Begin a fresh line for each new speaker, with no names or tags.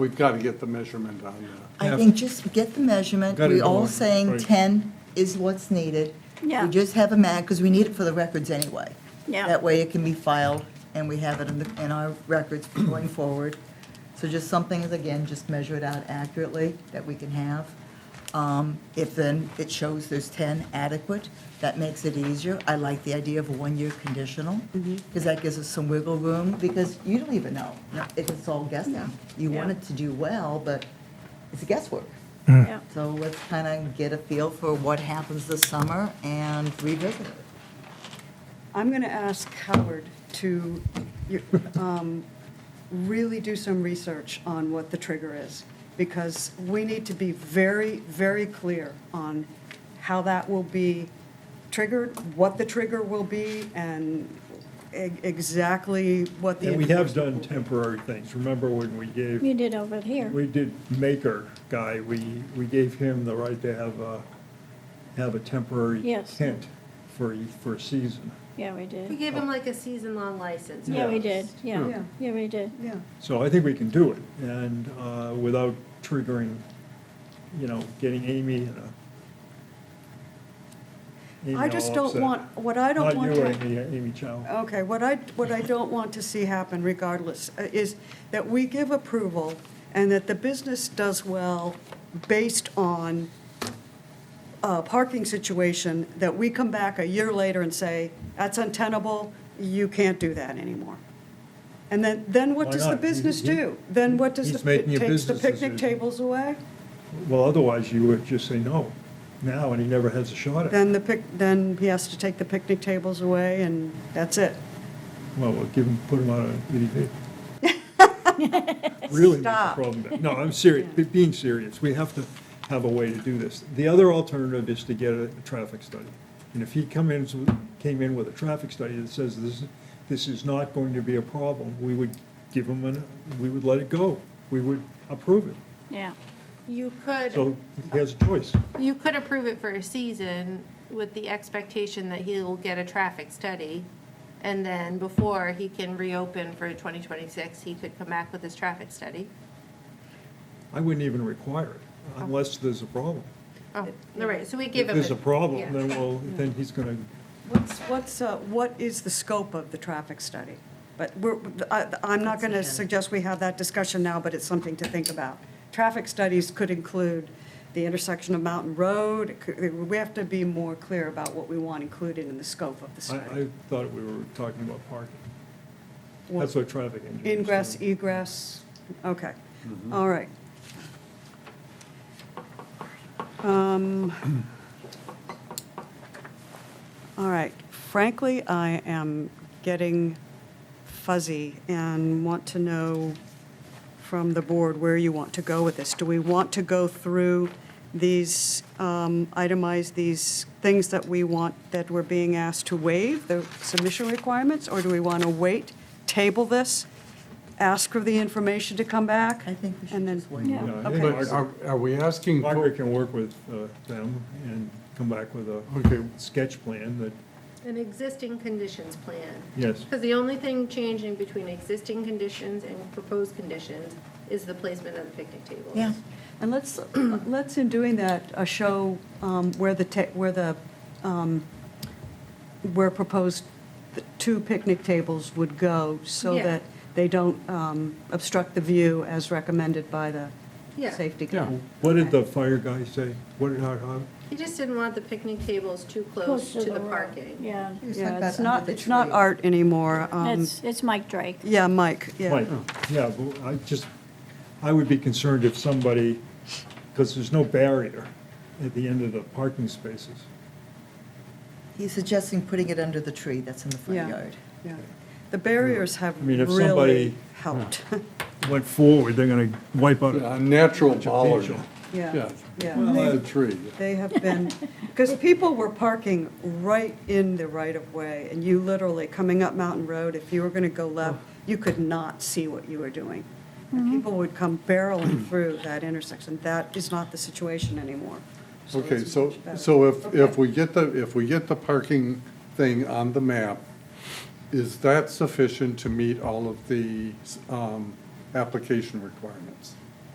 We've got to get the measurement on that.
I think just get the measurement,
Got it
we're all
going,
saying
right.
10 is what's needed.
Yeah.
We just have a mag, because we need it for the records anyway.
Yeah.
That way it can be filed, and we have it in the, in our records going forward. So just something, is, again, just measure it out accurately that we can have. Um, If then it shows there's 10 adequate, that makes it easier. I like the idea of a one-year conditional, because that gives us some wiggle room, because you don't even know. If it's all guessing. You want
Yeah.
it to do well, but it's guesswork.
Yeah.
So let's kind of get a feel for what happens this summer and revisit it.
I'm going to ask Howard to um, really do some research on what the trigger is, because we need to be very, very clear on how that will be triggered, what the trigger will be, and e- exactly what the.
And we have done temporary things. Remember when we
You
gave,
did over here.
we did Maker guy, we, we gave him the right to have a, have a temporary
Yes.
tent for, a- for a season.
Yeah, we
We
did.
gave him like a season-long license.
Yeah, we
almost.
did. Yeah,
Yeah.
yeah, we did.
Yeah,
So I think we can do it, and uh, without triggering, you know, getting Amy in a. Amy
I just
all
don't
upset.
want- what I don't want to-
Not you, Amy, Amy Chow.
okay, what I, what I don't want to see happen regardless uh, is that we give approval and that the business does well based on uh, parking situation that we come back a year later and say, that's untenable, you can't do that anymore. And then, then what
Why
does the
not?
business
He- he-
do? Then what does,
he's
the-
making a
it takes the
business
picnic
decision.
tables away?
Well, otherwise you would just say no now, and he never has a shot at it.
Then the pic, then he has to take the picnic tables away and that's it.
Well, we'll give him, put him on an EDV. Really make a
Stop.
problem. there. No, I'm serious, be- being serious. We have to have a way to do this. The other alternative is to get a traffic study. And if he come in, came in with a traffic study that says this, this is not going to be a problem, we would give him an, we would let it go. We would approve it.
Yeah.
You could,
So he has a choice.
you could approve it for a season with the expectation that he'll get a traffic study. And then before he can reopen for 2026, he could come back with his traffic study.
I wouldn't even require it unless there's a problem.
Oh, all right, so we
If
give him.
there's a
yeah.
problem, then well, then he's gonna,
What's, what's, uh, what is the scope of the traffic study? But we're, I, I'm not going to suggest we have that discussion now, but it's something to think about. Traffic studies could include the intersection of Mountain Road. It could- We have to be more clear about what we want included in the scope of the
I,
study.
I thought we were talking about parking. That's what traffic engineers.
Ingress,
do.
egress, okay,
Mm-hmm.
all right. Um, All right, frankly, I am getting fuzzy and want to know from the board where you want to go with this. Do we want to go through these, um, itemize these things that we want, that we're being asked to waive, the submission requirements? Or do we want to wait, table this, ask for the information to come back?
I think we should
and then-
just wait.
Yeah.
Yeah, I think Margaret-
But are, are we asking, for-
Margaret can work with uh, them and come back with
Okay.
a sketch plan that,
An existing conditions plan.
yes,
Because the only thing changing between existing conditions and proposed conditions is the placement of the picnic tables.
Yeah.
And let's, let's in doing that, uh, show um, where the, ta- where the, um, where proposed the two picnic tables would go so
Yeah.
that they don't um, obstruct the view as recommended by the
Yeah.
safety.
Yeah.
committee.
what did the fire guy say? What did, how, how?
He just didn't want the picnic tables too close to the
road.
parking.
Yeah.
Yeah, it's not, it's not art anymore. um,
It's, it's Mike Drake.
Yeah, Mike, yeah.
Right, Oh. yeah, but I just, I would be concerned if somebody, because there's no barrier at the end of the parking spaces.
He's suggesting putting it under the tree that's in the front
Yeah.
yard.
yeah. The barriers have
I mean, if
really
somebody-
helped.
Went forward, they're gonna wipe out.
a natural bollard?
Yeah, yeah.
Not a tree.
They have been, because people were parking right in the right-of-way, and you literally, coming up Mountain Road, if you were going to go left, you could not see what you were doing. And people would come barreling through that intersection. That is not the situation anymore.
Okay,
it's
so,
much better.
so if, if
Okay.
we get the, if we get the parking thing on the map, is that sufficient to meet all of the um, application requirements?